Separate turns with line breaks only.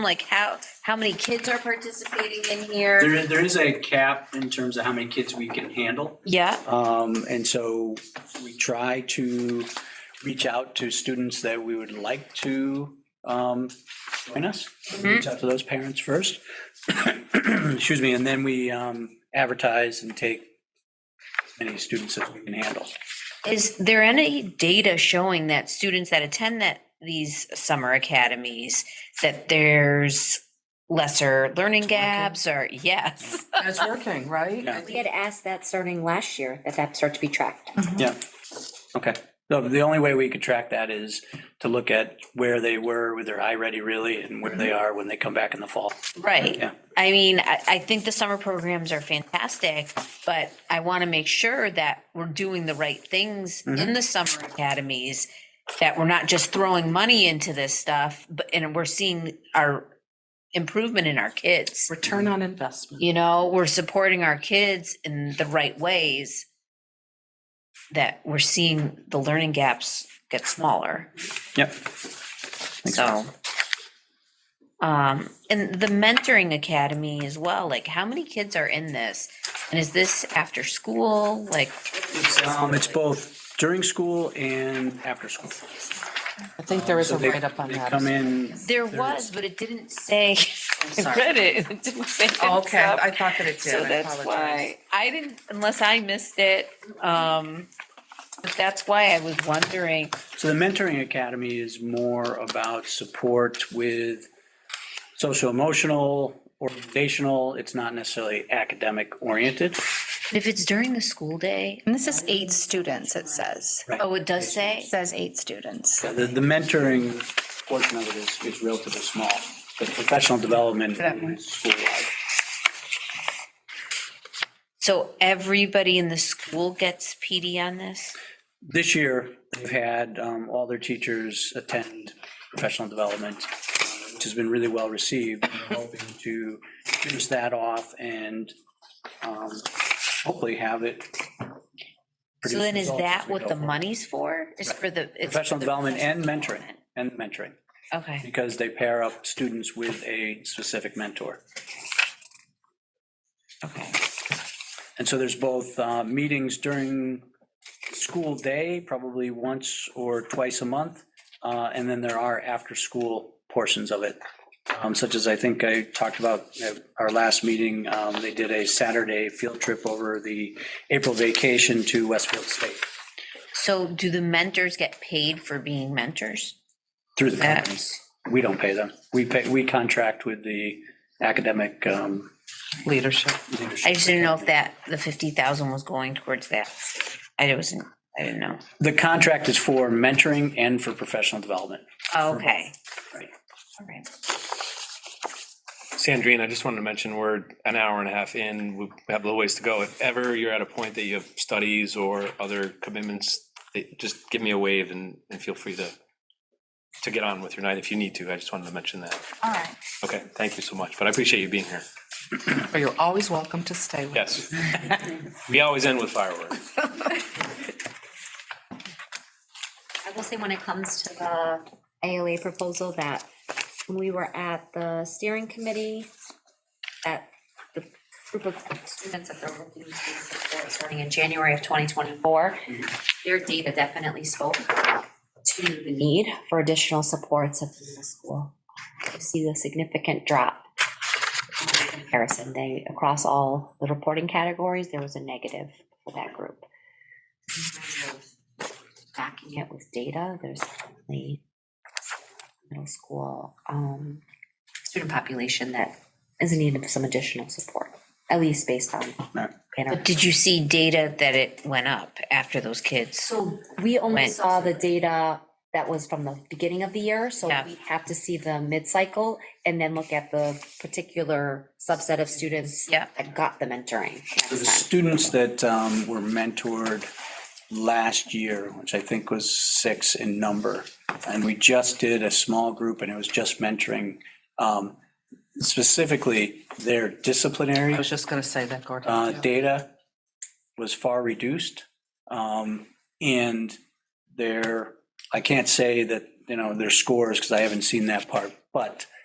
Like how, how many kids are participating in here?
There is, there is a cap in terms of how many kids we can handle.
Yeah,
Um, and so we try to reach out to students that we would like to, um, join us. Reach out to those parents first. Excuse me, and then we, um, advertise and take as many students as we can handle.
is there any data showing that students that attend that, these summer academies, that there's lesser learning gaps or, yes?
And it's working, right?
Yeah.
I
We
think-
had asked that starting last year, that that start to be tracked.
Yeah, okay. So the only way we could track that is to look at where they were with their iReady really and where they are when they come back in the fall.
Right.
Yeah.
I mean, I, I think the summer programs are fantastic, but I want to make sure that we're doing the right things in the summer academies, that we're not just throwing money into this stuff, but, and we're seeing our improvement in our kids.
Return on investment.
you know, we're supporting our kids in the right ways that we're seeing the learning gaps get smaller.
Yep.
So. Um, and the mentoring academy as well, like how many kids are in this? And is this after school? Like,
Um, it's both during school and after school.
I think there is
So
a
they-
write-up on
they
that.
Come in,
there was, but it didn't say, I
sorry.
read it, it didn't say.
Oh,
heads
Okay,
up.
I thought that it did.
So
I
that's
apologize.
why, I didn't, unless I missed it, um, but that's why I was wondering,
so the mentoring academy is more about support with social emotional, organizational, it's not necessarily academic oriented.
If it's during the school day,
And this is eight students, it says.
Right.
oh, it does say,
It says eight students.
The, the mentoring portion of it is, is relatively small, but professional development is school-wide.
so everybody in the school gets PD on this?
This year, they've had um, all their teachers attend professional development, uh, which has been really well received. We're Hoping to finish that off and um, hopefully have it.
So
produce
then is
results as
that
we
what
go
the
forward.
money's for? Is for the. it's for
Professional
the
development and
professional
mentoring, and mentoring,
development. Okay,
because they pair up students with a specific mentor.
okay.
And so there's both uh, meetings during school day, probably once or twice a month. uh, And then there are after-school portions of it, um, such as I think I talked about at our last meeting. um, They did a Saturday field trip over the April vacation to Westfield State
So do the mentors get paid for being mentors?
through the companies.
That's
We don't pay them. We pay, we contract with the academic um,
Leadership.
leadership.
I just didn't know if that, the fifty thousand was going towards that. I wasn't, I didn't know.
The contract is for mentoring and for professional development.
Okay.
Right.
All right.
Sandrine, I just wanted to mention, we're an hour and a half in, we have a little ways to go. If ever you're at a point that you have studies or other commitments, eh, just give me a wave and, and feel free to, to get on with your night if you need to. I just wanted to mention that.
All right.
Okay, thank you so much, but I appreciate you being here.
But you're always welcome to stay with.
Yes. We always end with fireworks.
I will say when it comes to the ALA proposal that when we were at the steering committee, that the group of students that they're looking to support starting in January of 2024, their data definitely spoke to the need for additional supports at the school. You see the significant drop in comparison. They, across all the reporting categories, there was a negative for that group. Backing it with data, there's definitely middle school um, student population that is in need of some additional support, at least based on.
Right.
But did you see data that it went up after those kids?
So we only
Went.
saw the data that was from the beginning of the year, so
Yeah.
we have to see the mid-cycle and then look at the particular subset of students
Yeah.
that got the mentoring.
So The
next time.
students that um, were mentored last year, which I think was six in number, and we just did a small group and it was just mentoring. um, Specifically, their disciplinary
I was just gonna say that, Gordon.
uh,
Oh, Yeah.
data was far reduced. um, And their, I can't say that, you know, their scores, because I haven't seen that part, but